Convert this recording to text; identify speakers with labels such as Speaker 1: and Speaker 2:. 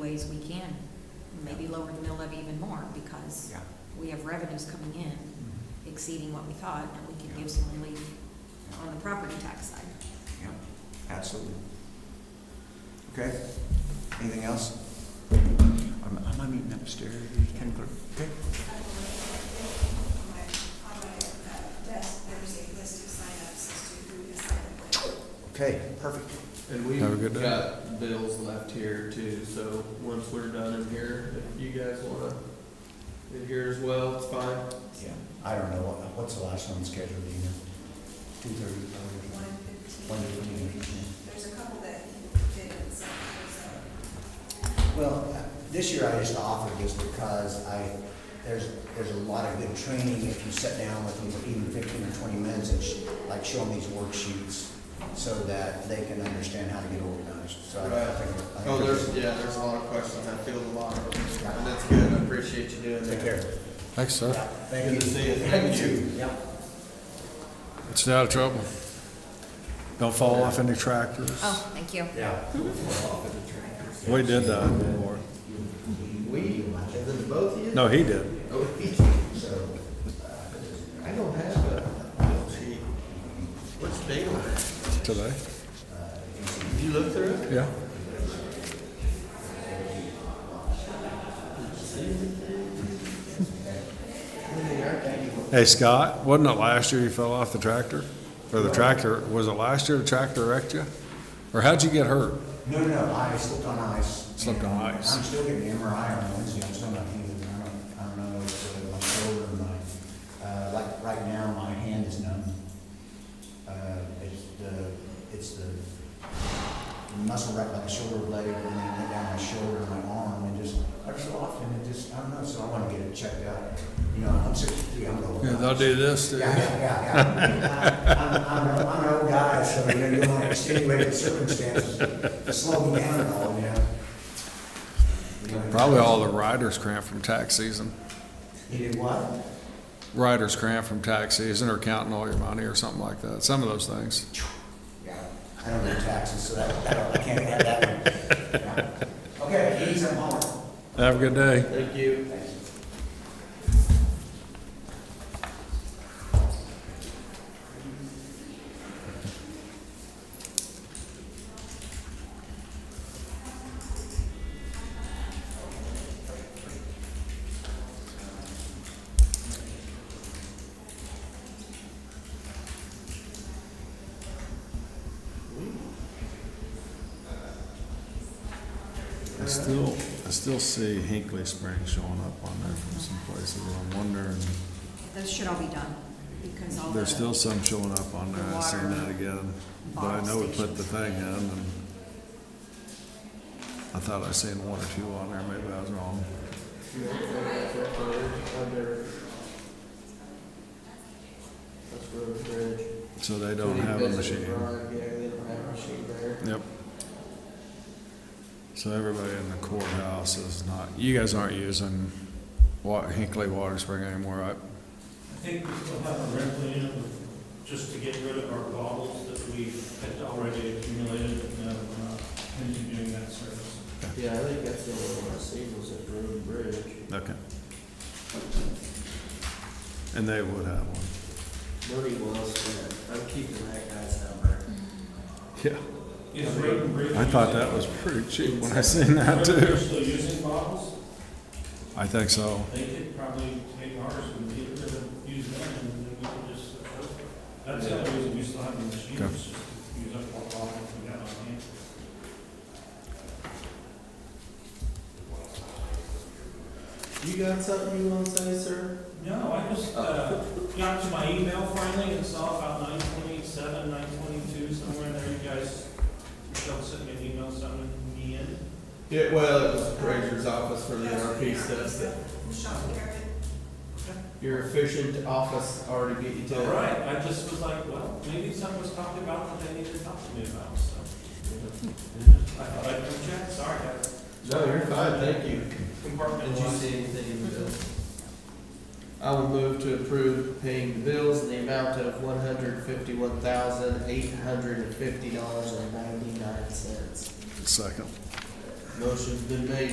Speaker 1: ways we can, maybe lower the mill levy even more, because
Speaker 2: Yeah.
Speaker 1: we have revenues coming in
Speaker 2: Mhm.
Speaker 1: exceeding what we thought, and we can give some relief on the property tax side.
Speaker 2: Yeah, absolutely. Okay, anything else? Am am I meeting upstairs, Ken Clerk? Okay.
Speaker 3: uh,
Speaker 2: Okay, perfect.
Speaker 4: And we've
Speaker 5: Have a good day.
Speaker 4: got bills left here too, so once we're done in here, if you guys wanna, in here as well, it's fine.
Speaker 2: Yeah, I don't know, what- what's the last one scheduled, do you know? Two thirty, probably. One fifteen.
Speaker 3: There's a couple that didn't, so,
Speaker 6: Well, uh, this year I just offered this because I, there's, there's a lot of good training if you sit down with them for even fifteen or twenty minutes and sh- like show them these worksheets so that they can understand how to get organized, so I- I think. I think
Speaker 4: Oh,
Speaker 6: it's-
Speaker 4: there's, yeah, there's a lot of questions, I feel a lot of them, and that's good, I appreciate you doing that.
Speaker 6: Take care.
Speaker 5: Thanks, sir.
Speaker 6: Thank you.
Speaker 4: Good to see you. Thank you.
Speaker 6: Yeah.
Speaker 5: Stay out of trouble. Don't fall off any tractors.
Speaker 1: Oh, thank you.
Speaker 5: We did that before.
Speaker 4: We, and then both of you?
Speaker 5: No, he did.
Speaker 4: Oh, uh, I don't have a bill sheet. What's the date on it?
Speaker 5: Today?
Speaker 4: Did you look through it?
Speaker 5: Yeah. Hey, Scott, wasn't it last year you fell off the tractor? Or the tractor, was it last year the tractor wrecked you? Or how'd you get hurt?
Speaker 6: No, no, no, I slipped on ice.
Speaker 5: Slipped on
Speaker 6: And
Speaker 5: ice.
Speaker 6: I'm still getting an MRI on Wednesday, I'm still not healing, I don't, I don't know, it's uh, my shoulder, and my, uh, like, right now, my hand is numb. Uh, it's the, it's the muscle right by the shoulder blade, and then it went down my shoulder and my arm, and just, every so often, it just, I don't know, so I wanna get it checked out. You know, I'm sixty-three, I'm old.
Speaker 5: this.
Speaker 6: Yeah, yeah, yeah, yeah. I'm, I'm, a- I'm an old guy, so you know, you want to extenuate the circumstances, to slow me down and all, you know? You know?
Speaker 5: Probably all the riders cramp from tax season.
Speaker 6: You did what?
Speaker 5: Riders cramp from tax season or counting all your money or something like that. Some of those things.
Speaker 6: Yeah, I don't do taxes, so that, that don't- I can't have that one. Yeah. Okay, ladies and gentlemen.
Speaker 5: Have a good day.
Speaker 4: Thank you.
Speaker 7: I still, I still see Hinkley Springs showing up on there from some places, and I'm wondering,
Speaker 1: Those should all be done, because all the.
Speaker 7: there's still some showing up on there, I seen that again. But I know we put the thing in, and I thought I seen one or two on there, maybe I was wrong.
Speaker 4: That's Road Bridge.
Speaker 7: So they don't have a machine.
Speaker 4: Yeah, they don't have a machine there.
Speaker 7: Yep. So everybody in the courthouse is not, you guys aren't using Wa- Hinkley Water Spring anymore, right?
Speaker 8: I think we still have a rent plan, just to get rid of our bottles that we had already accumulated, and uh, we're not continuing that service.
Speaker 4: Yeah, I think that's the only one I seen was at Road and Bridge.
Speaker 7: Okay. And they would have one.
Speaker 4: Money well spent. I'm keeping that guy's number.
Speaker 7: Yeah.
Speaker 8: Is Road and Bridge?
Speaker 7: I thought that was pretty cheap when I seen that too.
Speaker 8: They're still using bottles,
Speaker 7: I think so.
Speaker 8: they could probably take ours and get rid of, use them, and then we could just, that's the only reason we still have the machines,
Speaker 7: Okay.
Speaker 8: just to use up our bottles we got on hand.
Speaker 4: You got something you want to say, sir?
Speaker 8: No, I just, uh, got to my email finally and saw about nine twenty-seven, nine twenty-two, somewhere in there, you guys, Michelle sent me an email, sending me in.
Speaker 4: Yeah, well, it was Granger's office for the NRP stuff. that- Your efficient office already beat you to
Speaker 8: All
Speaker 4: it.
Speaker 8: right, I just was like, well, maybe someone was talking about what they needed to talk to me about, so. I thought I'd come check, sorry, I
Speaker 4: No, you're fine, thank you. Did you
Speaker 8: compartmentalized.
Speaker 4: see anything in the bill? I would move to approve paying the bills in the amount of one hundred fifty-one thousand, eight hundred and fifty dollars and ninety-nine cents.
Speaker 7: Second.
Speaker 4: Motion's been made